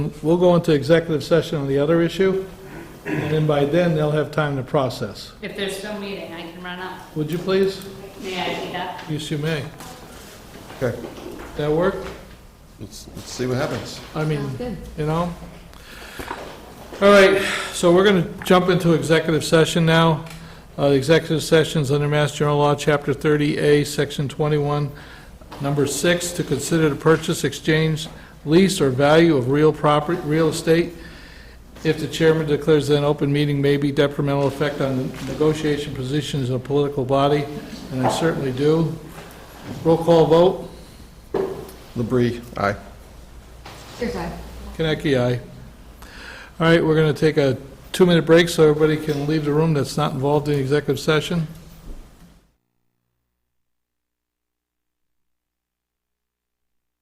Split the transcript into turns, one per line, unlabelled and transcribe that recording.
We'll go into executive session on the other issue, and then by then, they'll have time to process.
If there's still meeting, I can run up.
Would you please?
May I do that?
Yes, you may.
Okay,
That work?
let's, let's see what happens.
I mean, you know? All right, so we're going to jump into executive session now. Uh, the Executive sessions under Mass General Law, Chapter 30A, Section 21, Number 6, to consider the purchase, exchange, lease, or value of real property, real estate. If the chairman declares that an open meeting may be detrimental effect on negotiation positions in a political body, and I certainly do. Roll call vote.
Labrie, aye.
Here's I.
Kaneki, aye. All right, we're going to take a two-minute break so everybody can leave the room that's not involved in executive session.